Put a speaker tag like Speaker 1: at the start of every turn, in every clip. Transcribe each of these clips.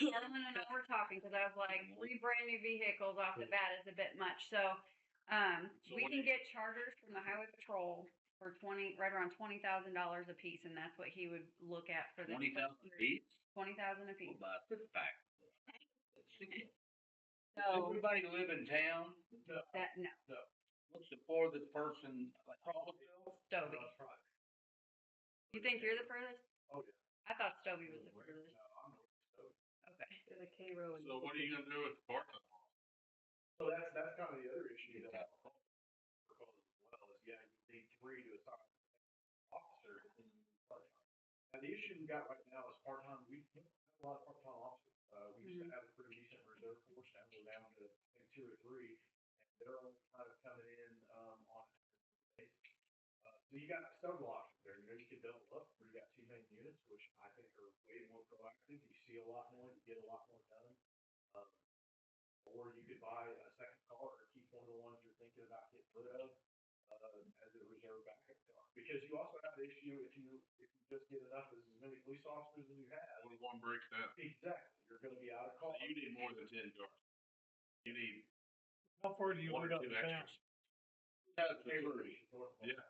Speaker 1: the other one and I were talking, because I was like, three brand new vehicles off the bat is a bit much, so. Um,
Speaker 2: So
Speaker 1: we
Speaker 2: what-
Speaker 1: can get chargers from the highway patrol for twenty, right around twenty thousand dollars a piece, and that's what he would look at for the.
Speaker 2: Twenty thousand feet?
Speaker 1: Twenty thousand a
Speaker 2: We'll
Speaker 1: piece,
Speaker 2: buy a six pack.
Speaker 1: so
Speaker 2: Everybody live in town?
Speaker 1: that, no,
Speaker 2: What's the farthest person?
Speaker 1: Stovey. You think you're the furthest?
Speaker 3: Oh, yeah.
Speaker 1: I thought Stovey was the furthest, okay.
Speaker 4: The K row.
Speaker 5: So what are you gonna do with the parking lot?
Speaker 3: So that's, that's kind of the other issue that. we're calling as Well, is yeah, you need three to assign an officer. and part-time. Now, the issue we got right now is part-time, we don't have a lot of part-time officers. Uh, we used to have a pretty decent reserve force, now we're down to I think, two or three. And they're all kind of coming in, um, on. a basis. Uh, So you got several options there. You know, you could double up, or you got two main units, which I think are way more proactive. You see a lot more, you get a lot more done. Um, or you could buy a second car or keep one of the ones you're thinking about getting rid of, uh, as a reserve backup car. Because you also have the issue, if you, if you just get enough, as many police officers as you have,
Speaker 5: What if one breaks down?
Speaker 3: exactly, you're gonna be out of
Speaker 6: Oh.
Speaker 3: call.
Speaker 5: You need more than ten yards. You need
Speaker 6: How far do you
Speaker 5: one
Speaker 6: want
Speaker 5: or
Speaker 6: out
Speaker 5: two
Speaker 6: of town?
Speaker 5: extras. That's
Speaker 3: Hey, Larry, North Carolina.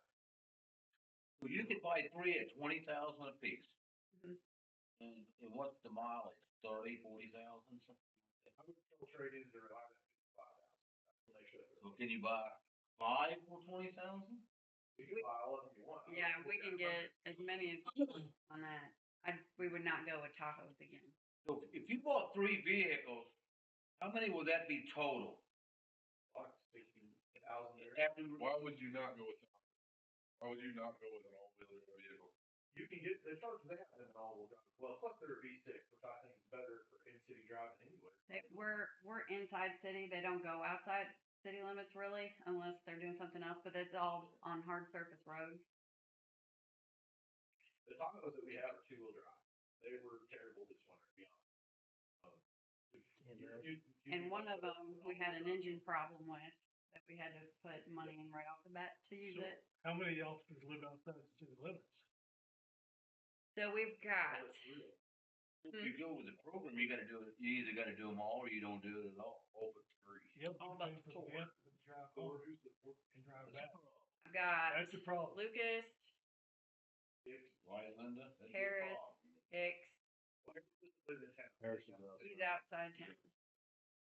Speaker 2: Well, you could buy three at twenty thousand apiece.
Speaker 1: Mhm.
Speaker 2: And, and what's the mileage? Thirty, forty thousand something?
Speaker 3: I would still trade in the Reliant at fifty-five thousand. Make sure that
Speaker 2: So
Speaker 3: they're-
Speaker 2: can you buy five for twenty thousand?
Speaker 3: You can buy all of them you want.
Speaker 1: Yeah, we can get as many as on that. I, we would not go with Tahoe's again.
Speaker 2: So if you bought three vehicles, how many would that be total?
Speaker 3: Like sixty thousand there.
Speaker 2: After,
Speaker 5: Why would you not go with that? Why would you not go with an all-wheeler vehicle?
Speaker 3: You can get, the charges they have in an all-wheel drive, well, plus they're a V six, which I think is better for in-city driving anyway.
Speaker 1: They, we're, we're inside city. They don't go outside city limits really unless they're doing something else, but it's all on hard surface roads.
Speaker 3: The Tahoes that we have are two-wheel drive. They were terrible this winter, to be honest. Um, you- you- you- you-
Speaker 1: And
Speaker 5: Mm-hmm.
Speaker 1: one of them, we had an engine problem with that we had to put money in right off the bat to use
Speaker 6: So-
Speaker 1: it.
Speaker 6: How many officers live outside the city limits?
Speaker 1: So we've got,
Speaker 3: Well, it's real.
Speaker 1: Hmm.
Speaker 2: if you go with the program, you gotta do it, you either gotta do them all or you don't do it at all, open three.
Speaker 6: Yep,
Speaker 1: All
Speaker 5: Oh,
Speaker 6: you
Speaker 1: but
Speaker 6: pay for
Speaker 1: four.
Speaker 6: the gas and drive
Speaker 3: Or
Speaker 6: home
Speaker 3: who's the fourth?
Speaker 6: and drive back.
Speaker 1: I've got
Speaker 6: That's the problem.
Speaker 1: Lucas,
Speaker 3: Dick?
Speaker 2: Right, Linda? That's your
Speaker 1: Harris.
Speaker 2: call.
Speaker 1: Hicks,
Speaker 3: Why is it live in town?
Speaker 2: Harrison Brothers.
Speaker 1: he's outside town.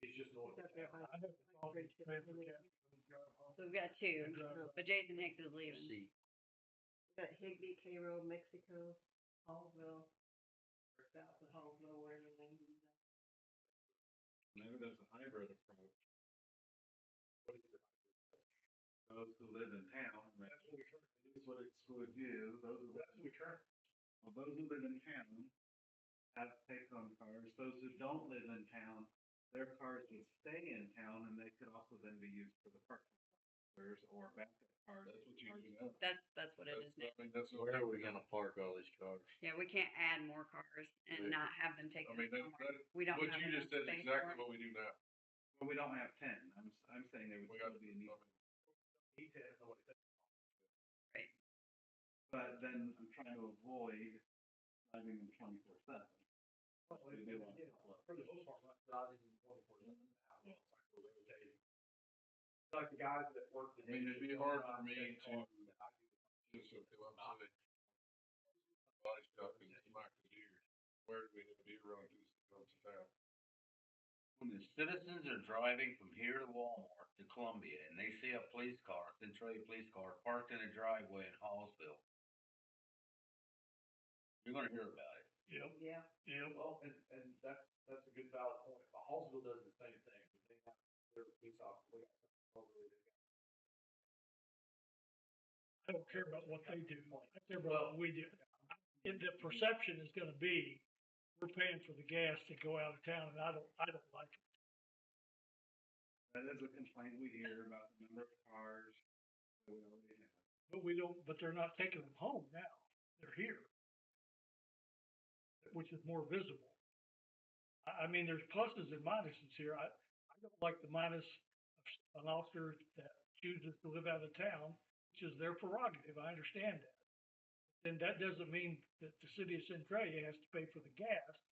Speaker 3: It's just north of
Speaker 4: Except
Speaker 3: town.
Speaker 6: I have to call and pay for gas and drive home
Speaker 1: So we've got two,
Speaker 5: uh,
Speaker 6: and drive back.
Speaker 1: but Jason Hicks is leaving.
Speaker 2: See,
Speaker 4: Got Higby, K row, Mexico, Hallville, south of Hallville, where the name is.
Speaker 5: Maybe there's a hybrid approach. Those who live in town, that
Speaker 3: That's what we currently do.
Speaker 5: is what it's would do, those who,
Speaker 3: That's what we currently,
Speaker 5: well, those who live in town have take-home cars, those who don't live in town, their cars would stay in town and they could also then be used for the parking. Cars or backup cars. That's what you do now.
Speaker 1: That's, that's what it is now.
Speaker 5: mean, that's. Where are we gonna park?
Speaker 1: Yeah, we can't add more cars and
Speaker 5: Right.
Speaker 1: not have them taken.
Speaker 5: I mean, that,
Speaker 1: somewhere.
Speaker 5: that,
Speaker 1: We don't
Speaker 5: what
Speaker 1: have
Speaker 5: you
Speaker 1: enough
Speaker 5: just said is
Speaker 1: space
Speaker 5: exactly
Speaker 1: for it.
Speaker 5: what we do now.
Speaker 7: Well, we don't have ten. I'm, I'm saying there would
Speaker 5: We got,
Speaker 7: still
Speaker 5: I
Speaker 7: be a need.
Speaker 5: mean,
Speaker 3: need to know what it is.
Speaker 7: But then I'm trying to avoid driving them twenty-four seven.
Speaker 3: Probably,
Speaker 7: do
Speaker 3: you know, For the most part, not driving twenty-four seven. Like the guys that work. the
Speaker 5: I mean, it'd be
Speaker 3: day-
Speaker 5: hard for me to-
Speaker 3: I do the
Speaker 5: just so people know that body shop and Mike Deere, where do we need to be around this, around town?
Speaker 2: When the citizens are driving from here to Walmart to Columbia and they see a police car, Centralia police car parked in a driveway in Hallsville, you're gonna hear about it.
Speaker 6: Yep,
Speaker 4: Yeah,
Speaker 6: yep.
Speaker 3: Well, and, and that's, that's a good valid point, but Hallsville does the same thing, they have their police officer.
Speaker 6: I don't care about what they do. I care about what we do. And the perception is gonna be, we're paying for the gas to go out of town and I don't, I don't like it.
Speaker 7: That is a complaint we hear about the number of cars that we already have.
Speaker 6: But we don't, but they're not taking them home now. They're here. Which is more visible. I, I mean, there's pluses and minuses here. I, I don't like the minus of s- an officer that chooses to live out of town, which is their prerogative. I understand that. Then that doesn't mean that the city of Centralia has to pay for the gas